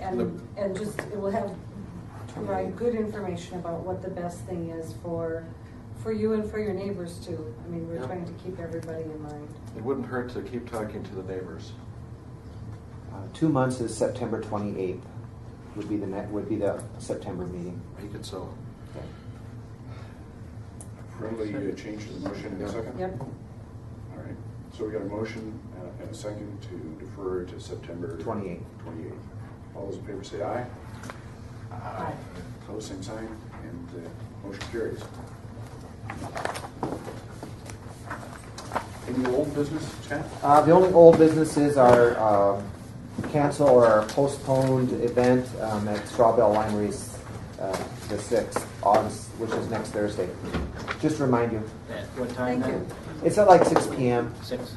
And, and just, it will have, provide good information about what the best thing is for, for you and for your neighbors too. I mean, we're Yeah. trying to keep everybody in mind. It wouldn't hurt to keep talking to the neighbors. Uh, Two months is September 28th, would be the, ne- would be the September meeting. Make it so. Okay. Friendly uh, change to the motion in a second? Yep, All right, so we got a motion uh, and a second to defer to September. 28th. 28th. All those in favor say aye. Aye. Opposed, same sign, and uh, motion carries. Any old business, Chad? Uh, the only old businesses are um, cancel or postponed event um, at Strawbell Wineries, uh, the sixth August, which is next Thursday. Just to remind you, At what time thank now? you. it's at like six p.m. Six.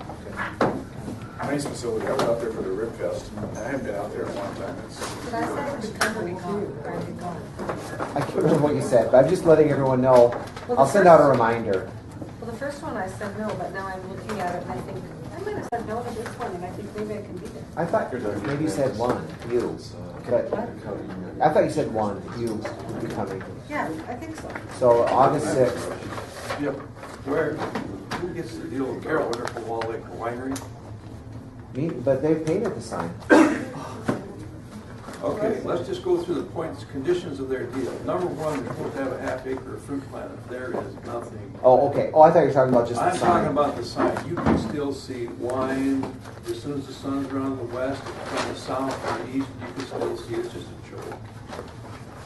Nice facility, I was out there for the Rib Fest, and I haven't been out there in a long time. It's- But I said it would come when it comes, or it comes. I can't remember what you said, but I'm just letting everyone know. I'll send out a reminder. Well, the first one I said no, but now I'm looking at it and I think, I might have said no to this one and I think maybe I can beat it. I thought maybe you said one, you, but I thought you said one, you would be coming. Yeah, I think so. So August sixth. Yep. Where? Who gets the deal with Carol Wonderful Wall Lake Winery? Me, but they've painted the sign. Okay, let's just go through the points, conditions of their deal. Number one, they're supposed to have a half acre of fruit planted. There is nothing. Oh, okay. Oh, I thought you were talking about just the I'm sign. talking about the sign. You can still see wine, as soon as the sun's around the west, from the south or east, you can still see it's just a joke.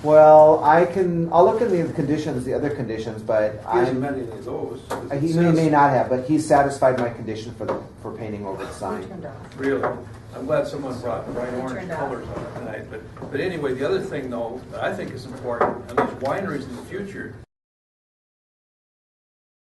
Well, I can, I'll look at the conditions, the other conditions, but He hasn't I'm, met any of those. uh, he may, may not have, but he satisfied my condition for the, for painting over We the turned sign. off. Really? I'm glad someone brought bright orange Turned out. colors on it tonight, but, but anyway, the other thing though, that I think is important, and those wineries in the future,